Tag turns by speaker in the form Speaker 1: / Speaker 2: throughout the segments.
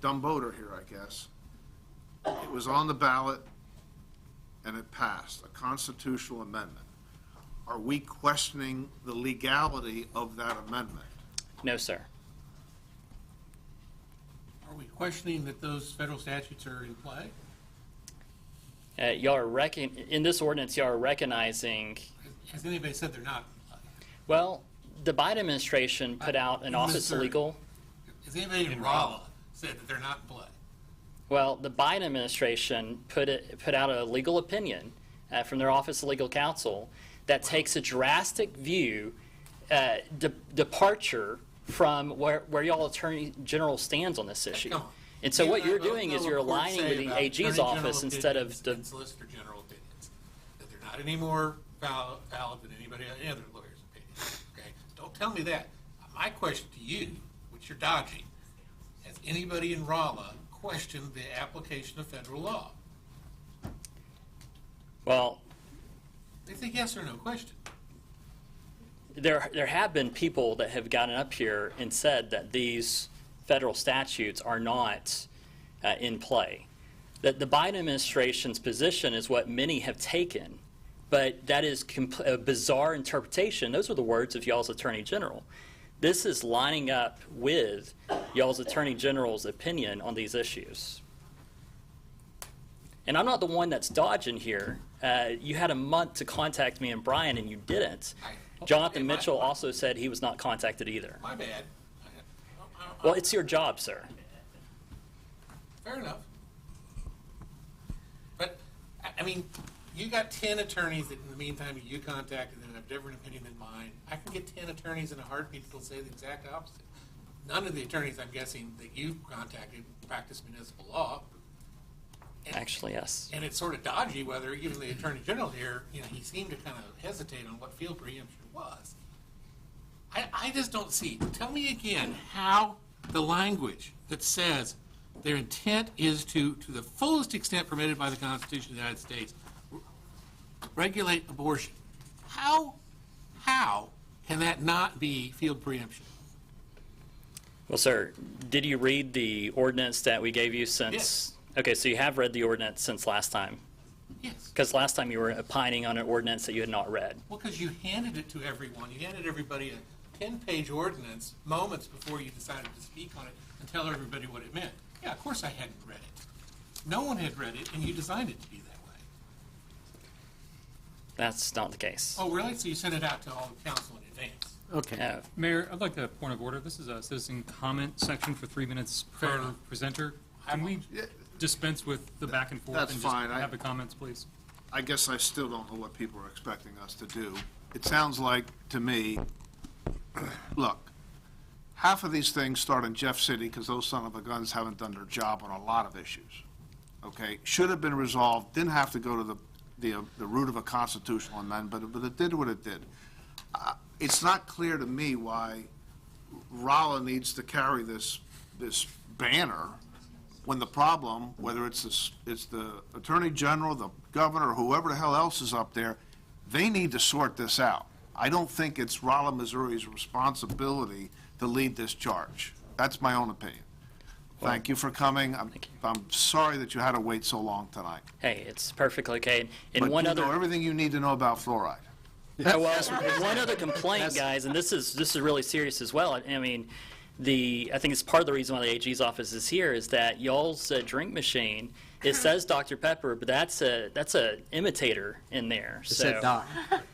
Speaker 1: dumb boater here, I guess. It was on the ballot and it passed, a constitutional amendment. Are we questioning the legality of that amendment?
Speaker 2: No, sir.
Speaker 3: Are we questioning that those federal statutes are in play?
Speaker 2: Uh, y'all are recon- in this ordinance, y'all are recognizing,
Speaker 3: Has anybody said they're not? in play?
Speaker 2: well, the Biden administration put out an
Speaker 3: No,
Speaker 2: office of
Speaker 3: sir.
Speaker 2: legal.
Speaker 3: Has anybody in Rala said that they're not in play?
Speaker 2: Well, the Biden administration put it, put out a legal opinion uh, from their Office of Legal Counsel that takes a drastic view, uh, de- departure from where, where y'all Attorney General stands on this issue.
Speaker 3: Come on.
Speaker 2: And so
Speaker 3: You
Speaker 2: what
Speaker 3: and I
Speaker 2: you're
Speaker 3: both
Speaker 2: doing
Speaker 3: know
Speaker 2: is you're
Speaker 3: what courts
Speaker 2: aligning
Speaker 3: say
Speaker 2: with the
Speaker 3: about
Speaker 2: AG's
Speaker 3: attorney general
Speaker 2: office instead of
Speaker 3: opinions
Speaker 2: the,
Speaker 3: And solicitor general opinions, that they're not any more val- valid than anybody, any other lawyer's opinion, okay? Don't tell me that. My question to you, which you're dodging, has anybody in Rala questioned the application of federal law?
Speaker 2: well,
Speaker 3: They think yes or no question.
Speaker 2: there, there have been people that have gotten up here and said that these federal statutes are not uh, in play. That the Biden administration's position is what many have taken, but that is comp- a bizarre interpretation. Those are the words of y'all's attorney general. This is lining up with y'all's attorney general's opinion on these issues. And I'm not the one that's dodging here. Uh, you had a month to contact me and Brian, and you didn't.
Speaker 3: I-
Speaker 2: Jonathan
Speaker 3: Am I-
Speaker 2: Mitchell also said he was not contacted either.
Speaker 3: My bad. I- I- I-
Speaker 2: Well, it's your job, sir.
Speaker 3: Fair enough. But, I, I mean, you got ten attorneys that in the meantime you contacted that have different opinion than mine. I can get ten attorneys in a heartbeat that'll say the exact opposite. None of the attorneys, I'm guessing, that you contacted practice municipal law. And-
Speaker 2: Actually, yes.
Speaker 3: And it's sort of dodgy whether even the attorney general here, you know, he seemed to kind of hesitate on what field preemption was. I, I just don't see. Tell me again how the language that says their intent is to, to the fullest extent permitted by the Constitution of the United States, re- regulate abortion. How, how can that not be field preemption?
Speaker 2: Well, sir, did you read the ordinance that we gave you since? Okay, so you have read the ordinance since last time,
Speaker 3: Yes.
Speaker 2: because last time you were opining on an ordinance that you had not read.
Speaker 3: Well, because you handed it to everyone. You handed everybody a ten-page ordinance moments before you decided to speak on it and tell everybody what it meant. Yeah, of course I hadn't read it. No one had read it, and you designed it to be that way.
Speaker 2: That's not the case.
Speaker 3: Oh, really? So you sent it out to all the council in advance?
Speaker 4: Okay.
Speaker 2: No.
Speaker 5: Mayor, I'd like a point of order. This is a citizen comment section for three minutes
Speaker 3: Fair
Speaker 5: per
Speaker 3: enough.
Speaker 5: presenter. Can we dispense with the back and forth?
Speaker 1: That's
Speaker 5: and
Speaker 1: fine. I-
Speaker 5: just have the comments, please?
Speaker 1: I guess I still don't know what people are expecting us to do. It sounds like, to me, look, half of these things start in Jeff City because those son of a guns haven't done their job on a lot of issues. Okay? Should have been resolved, didn't have to go to the, the, uh, the root of a constitutional amendment, but, but it did what it did. Uh, It's not clear to me why Rolla needs to carry this, this banner when the problem, whether it's this, it's the Attorney General, the Governor, whoever the hell else is up there, they need to sort this out. I don't think it's Rolla, Missouri's responsibility to lead this charge. That's my own opinion. Thank you for coming. I'm, I'm sorry that you had to wait so long tonight.
Speaker 2: Hey, it's perfectly okay. And
Speaker 1: But
Speaker 2: one
Speaker 1: you
Speaker 2: other.
Speaker 1: know everything you need to know about fluoride.
Speaker 2: Oh, well, so one other complaint, guys, and this is, this is really serious as well. I I mean, the, I think it's part of the reason why the AG's office is here is that y'all's uh, drink machine, it says Dr. Pepper, but that's a, that's a imitator in there,
Speaker 4: It
Speaker 2: so.
Speaker 4: said Doc.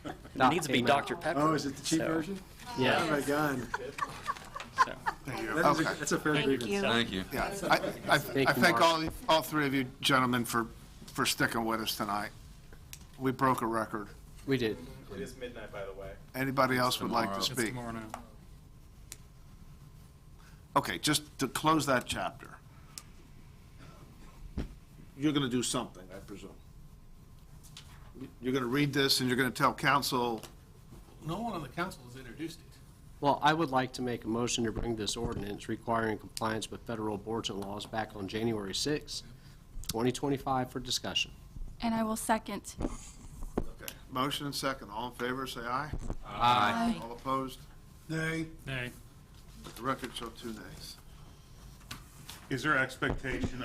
Speaker 2: It needs to be
Speaker 4: came out.
Speaker 2: Dr. Pepper.
Speaker 6: Oh, is it the cheap
Speaker 2: so,
Speaker 6: version? Oh,
Speaker 4: Yeah.
Speaker 6: my God.
Speaker 2: so.
Speaker 6: That is a-
Speaker 1: Okay.
Speaker 6: That's a fair
Speaker 7: Thank
Speaker 6: grievance.
Speaker 7: you.
Speaker 8: Thank you.
Speaker 1: Yeah, I, I I
Speaker 4: you,
Speaker 1: thank
Speaker 4: Mark.
Speaker 1: all, all three of you gentlemen for, for sticking with us tonight. We broke a record.
Speaker 4: We did.
Speaker 9: It is midnight, by the way.
Speaker 1: Anybody else would like to
Speaker 8: tomorrow.
Speaker 5: It's
Speaker 1: speak?
Speaker 5: tomorrow now.
Speaker 1: Okay, just to close that chapter. You're going to do something, I presume. You're going to read this and you're going to tell council,
Speaker 3: No one on the council has introduced it.
Speaker 4: Well, I would like to make a motion to bring this ordinance requiring compliance with federal abortion laws back on January 6, 2025 for discussion.
Speaker 7: And I will second.
Speaker 1: okay, motion and second, all in favor, say aye.
Speaker 7: Aye.
Speaker 1: All opposed? Nay.
Speaker 5: Nay.
Speaker 1: The record show two nays.
Speaker 10: Is there expectation